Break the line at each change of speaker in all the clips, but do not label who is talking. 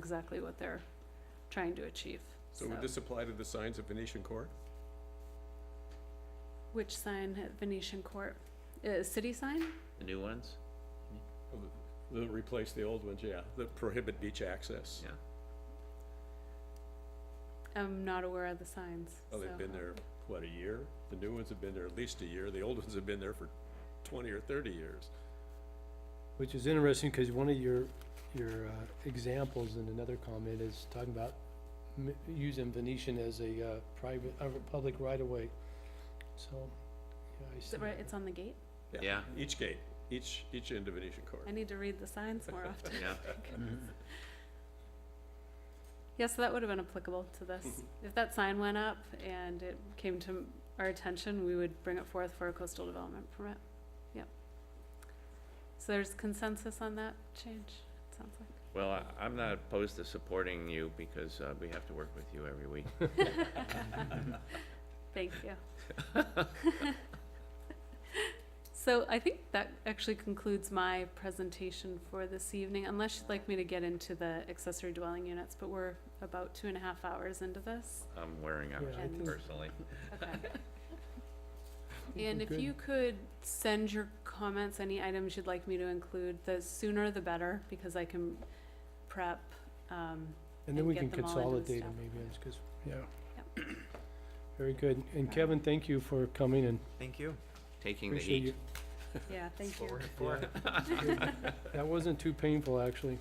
exactly what they're trying to achieve.
So would this apply to the signs of Venetian Court?
Which sign at Venetian Court? Uh, city sign?
The new ones?
They'll replace the old ones, yeah, that prohibit beach access.
Yeah.
I'm not aware of the signs.
Well, Oh, they've
so-
been there, what, a year? The new ones have been there at least a year, the old ones have been there for twenty or thirty years.
Which is interesting, because one of your, your uh, examples in another comment is talking about m- using Venetian as a uh, private, uh, public right-of-way. So, yeah, I
Is
see.
it right,
that.
it's on the gate?
Yeah.
Each gate, each, each end of Venetian Court.
I need to read the signs more often.
Yeah.
Yes, that would have been applicable to this. If that sign went up and it came to our attention, we would bring it forth for a coastal development permit. Yep. So there's consensus on that change, it sounds like.
Well, I, I'm not opposed to supporting you because, uh, we have to work with you every week.
Thank you. So I think that actually concludes my presentation for this evening, unless you'd like me to get into the accessory dwelling units, but we're about two and a half hours into this.
I'm wearing out
Yeah,
I think-
personally.
Okay.
I think
And
we're
if
good.
you could send your comments, any items you'd like me to include, the sooner the better, because I can prep, um,
And
and
then we
get
can
them all into the
consolidate
staff
them maybe,
report.
because, yeah. Very good. And Kevin, thank you for coming and
Thank you.
Taking the
appreciate
heat.
you.
yeah, thank you.
Yeah. That wasn't too painful, actually.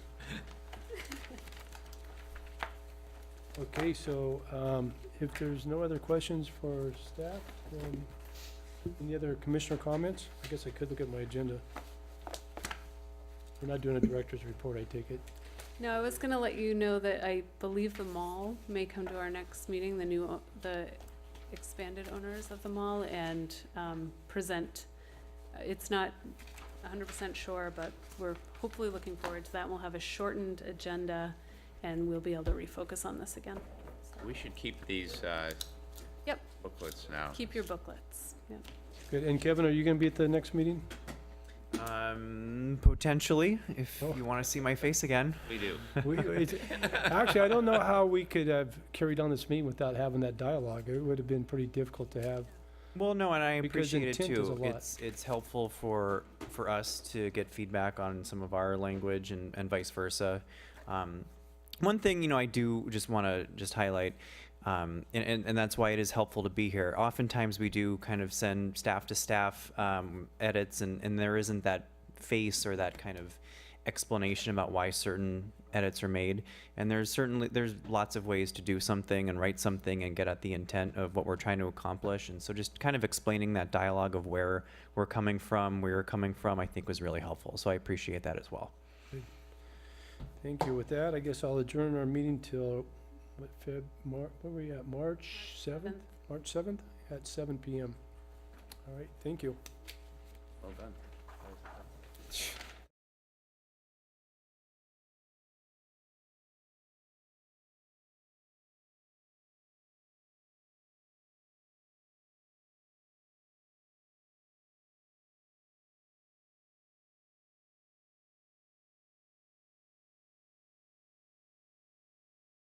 Okay, so, um, if there's no other questions for staff, then any other commissioner comments? I guess I could look at my agenda. We're not doing a director's report, I take it.
No, I was gonna let you know that I believe the mall may come to our next meeting, the new, o- the expanded owners of the mall, and, um, present. uh, It's not hundred percent sure, but we're hopefully looking forward to that, we'll have a shortened agenda, and we'll be able to refocus on this again.
We should keep these, uh,
Yep.
booklets now.
Keep your booklets, yeah.
Good, and Kevin, are you gonna be at the next meeting?
Um, potentially, if
Oh.
you want to see my face again.
We do.
We, it's, actually, I don't know how we could have carried on this meeting without having that dialogue. It would have been pretty difficult to have.
Well, no, and I
Because
appreciate it
intent is a
too.
lot.
It's it's helpful for for us to get feedback on some of our language and and vice versa. Um, one thing you know, I do just want to just highlight. Um, and, and, and that's why it is helpful to be here. Oftentimes, we do kind of send staff to staff um, edits, and, and there isn't that face or that kind of explanation about why certain edits are made and there's certainly there's lots of ways to do something and write something and get at the intent of what we're trying to accomplish and so just kind of explaining that dialogue of where we're coming from where you're coming from i think was really helpful so i appreciate that as well
Thank you. With that, I guess I'll adjourn our meeting till, what, Feb, Mar, what were we at, March seventh? March seventh at seven PM. All right, thank you.
Well done.